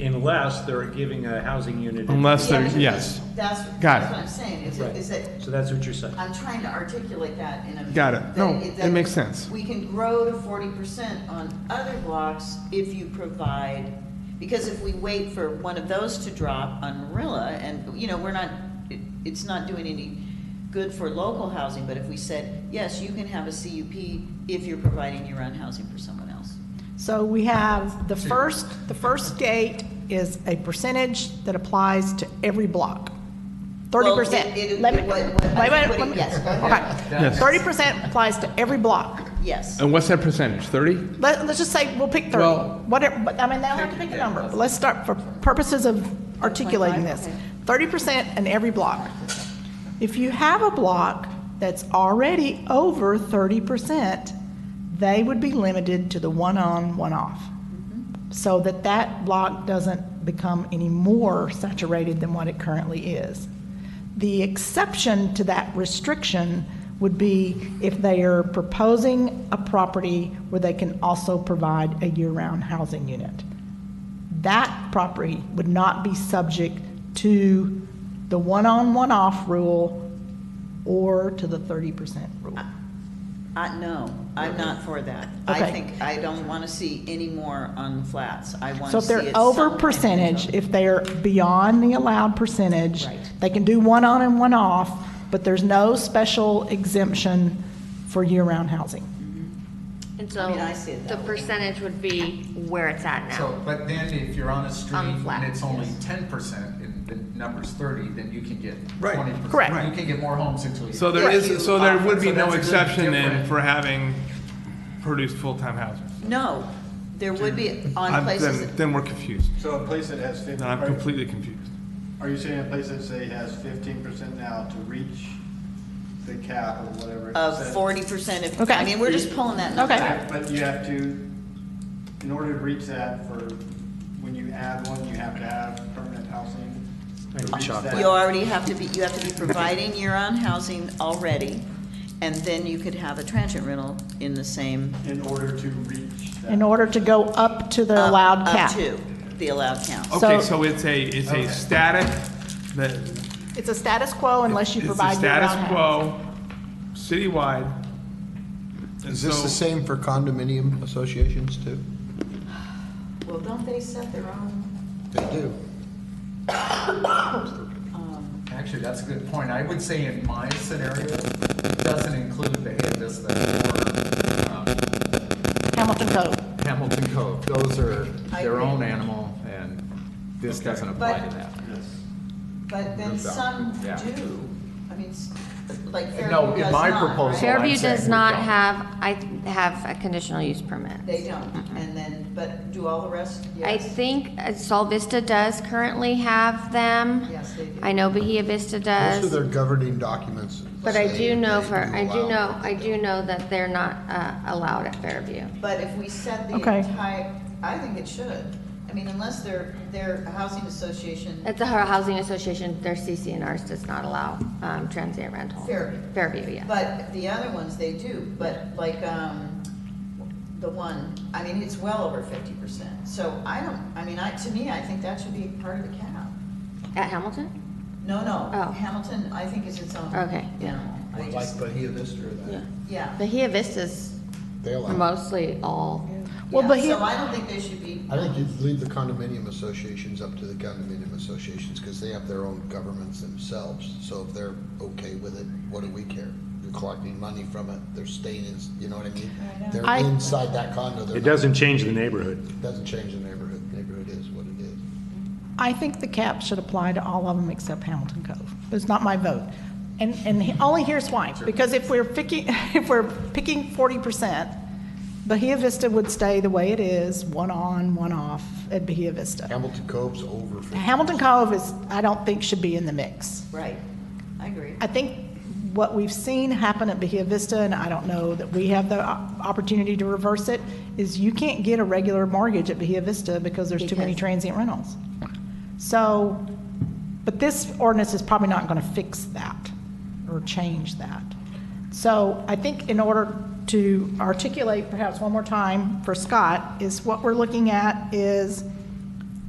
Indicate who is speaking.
Speaker 1: unless they're giving a housing unit. a-
Speaker 2: Unless
Speaker 3: Yeah,
Speaker 2: they're-
Speaker 3: because
Speaker 2: yes.
Speaker 3: That's,
Speaker 2: Got
Speaker 3: that's
Speaker 2: it.
Speaker 3: what I'm saying, is
Speaker 1: Right.
Speaker 3: it, is it,
Speaker 1: So that's what you're saying.
Speaker 3: I'm trying to articulate that in a.
Speaker 2: Got it. No,
Speaker 3: that
Speaker 2: it
Speaker 3: that
Speaker 2: makes sense.
Speaker 3: We can grow to forty percent on other blocks if you provide, because if we wait for one of those to drop on Marilla, and, you know, we're not, it, it's not doing any good for local housing, but if we said, yes, you can have a CUP if you're providing your own housing for someone else.
Speaker 4: So we have the first, the first date is a percentage that applies to every block. Thirty
Speaker 3: Well,
Speaker 4: percent.
Speaker 3: it- it-
Speaker 4: Wait,
Speaker 3: what- what-
Speaker 4: wait,
Speaker 3: what-
Speaker 4: wait.
Speaker 3: yes, go
Speaker 2: Yes.
Speaker 4: Thirty percent applies to every block.
Speaker 3: Yes.
Speaker 2: And what's that percentage, 30?
Speaker 4: Let, let's just say we'll pick thirty,
Speaker 2: Well-
Speaker 4: whatever, but I mean, they'll have to pick a number. But Let's start for purposes of articulating this. Thirty percent in every block. If you have a block that's already over thirty percent, they would be limited to the one-on, one-off. So that that block doesn't become any more saturated than what it currently is. The exception to that restriction would be if they are proposing a property where they can also provide a year-round housing unit. That property would not be subject to the one-on, one-off rule or to the 30% rule.
Speaker 3: I, no, I'm not for that. I
Speaker 4: Okay.
Speaker 3: think, I don't want to see any more on the flats. I want to
Speaker 4: So if
Speaker 3: see it.
Speaker 4: they're over
Speaker 3: somewhere.
Speaker 4: percentage, if they're beyond the allowed percentage,
Speaker 3: Right.
Speaker 4: they can do one on and one off, but there's no special exemption for year-round housing.
Speaker 5: And
Speaker 3: I
Speaker 5: so
Speaker 3: mean, I see it
Speaker 5: the
Speaker 3: that way.
Speaker 5: percentage would be where it's at now.
Speaker 6: So, but then if you're on a street
Speaker 5: On flat,
Speaker 6: and it's only
Speaker 5: yes.
Speaker 6: ten percent and the number's thirty, then you can get
Speaker 2: Right.
Speaker 6: twenty percent.
Speaker 4: Correct.
Speaker 6: You can get more homes into a year.
Speaker 2: So there
Speaker 3: Right.
Speaker 2: is, so there would be
Speaker 6: So
Speaker 2: no
Speaker 6: that's a little
Speaker 2: exception then
Speaker 6: different.
Speaker 2: for having produced full-time housing?
Speaker 3: No, there would be on
Speaker 2: I'm-
Speaker 3: places.
Speaker 2: Then, then we're confused.
Speaker 7: So a place that has fifteen,
Speaker 2: Then I'm
Speaker 7: are
Speaker 2: completely confused.
Speaker 7: are you saying a place that say has fifteen percent now to reach the cap or whatever? it
Speaker 3: Of
Speaker 7: says?
Speaker 3: forty percent of,
Speaker 4: Okay.
Speaker 3: I mean, we're just pulling that number.
Speaker 4: Okay.
Speaker 7: But but you have to, in order to reach that for, when you add one, you have to have permanent housing. to reach that.
Speaker 3: You already have to be, you have to be providing your own housing already, and then you could have a transient rental in the same.
Speaker 7: In order to reach that.
Speaker 4: In order to go up to the
Speaker 3: up-
Speaker 4: allowed
Speaker 3: uh, up
Speaker 4: cap.
Speaker 3: to the allowed count.
Speaker 2: Okay,
Speaker 4: So-
Speaker 2: so it's a, it's a static, that,
Speaker 4: It's a status quo unless you
Speaker 2: it's
Speaker 4: provide
Speaker 2: a
Speaker 4: year-round
Speaker 2: status
Speaker 4: housing.
Speaker 2: quo, citywide. And
Speaker 8: Is this
Speaker 2: so-
Speaker 8: the same for condominium associations too?
Speaker 3: Well, don't they set their own?
Speaker 8: They do.
Speaker 6: Actually, that's a good point. I would say in my scenario, it doesn't include the Havis that
Speaker 4: Hamilton Code.
Speaker 6: or Hamilton Cove. Those are
Speaker 3: I
Speaker 6: their
Speaker 3: agree.
Speaker 6: own animal and this doesn't apply
Speaker 3: But-
Speaker 6: to that.
Speaker 3: But then some
Speaker 6: Yeah.
Speaker 3: do, I mean, s- like Fairview does
Speaker 6: No,
Speaker 3: not.
Speaker 6: in my
Speaker 3: right?
Speaker 6: proposal, So I'm
Speaker 5: Fairview
Speaker 6: saying
Speaker 5: does
Speaker 6: we
Speaker 5: not
Speaker 6: don't.
Speaker 5: have, I have a conditional use permit.
Speaker 3: They don't, and then, but do all the rest?
Speaker 5: I
Speaker 3: Yes.
Speaker 5: think uh, Sol Vista does currently have them.
Speaker 3: Yes, they do.
Speaker 5: I know Bahia Vista
Speaker 8: Most of their
Speaker 5: does.
Speaker 8: governing documents.
Speaker 5: But I
Speaker 8: say
Speaker 5: do know
Speaker 8: they
Speaker 5: for, I do
Speaker 8: allow-
Speaker 5: know, I do know that they're not uh, allowed at Fairview.
Speaker 3: But if we set the
Speaker 4: Okay.
Speaker 3: entire, I think it should. I mean, unless they're, they're a housing association,
Speaker 5: At the Ho- Housing Association, their CCNRs does not allow um, transient rental.
Speaker 3: Fairview.
Speaker 5: Fairview, yes.
Speaker 3: but the other ones they do, but like, um, the one, I mean, it's well over fifty percent. So I don't, I mean, I, to me, I think that should be part of the cap.
Speaker 5: At Hamilton?
Speaker 3: No, no,
Speaker 5: Oh.
Speaker 3: Hamilton, I think is its own.
Speaker 5: Okay, yeah.
Speaker 3: animal. I
Speaker 8: Well, Like
Speaker 3: just-
Speaker 8: Bahia Vista or that.
Speaker 3: Yeah.
Speaker 5: Bahia Vista's
Speaker 8: They allow.
Speaker 5: mostly all,
Speaker 4: Well,
Speaker 3: Yeah,
Speaker 4: but he-
Speaker 3: So I don't think they should be.
Speaker 8: I think you leave the condominium associations up to the condominium associations because they have their own governments themselves. So if they're okay with it, what do we care? You're collecting money from it, they're staying in, you know what I mean? They're
Speaker 4: I-
Speaker 8: inside that condo. they're
Speaker 1: It
Speaker 8: not-
Speaker 1: doesn't change the neighborhood.
Speaker 8: Doesn't change the neighborhood. Neighborhood is what it is.
Speaker 4: I think the cap should apply to all of them except Hamilton Cove. It's not my vote. And, and he- only here's why, because if we're picking, if we're picking forty percent, Bahia Vista would stay the way it is, one on, one off at Bahia Vista.
Speaker 8: Hamilton Cove's over for.
Speaker 4: Hamilton Cove is, I don't think should be in the mix.
Speaker 3: Right, I agree.
Speaker 4: I think what we've seen happen at Bahia Vista, and I don't know that we have the op- opportunity to reverse it, is you can't get a regular mortgage at Bahia Vista because there's too many
Speaker 5: Because-
Speaker 4: transient rentals. So, but this ordinance is probably not going to fix that or change that. So I think in order to articulate perhaps one more time for Scott, is what we're looking at is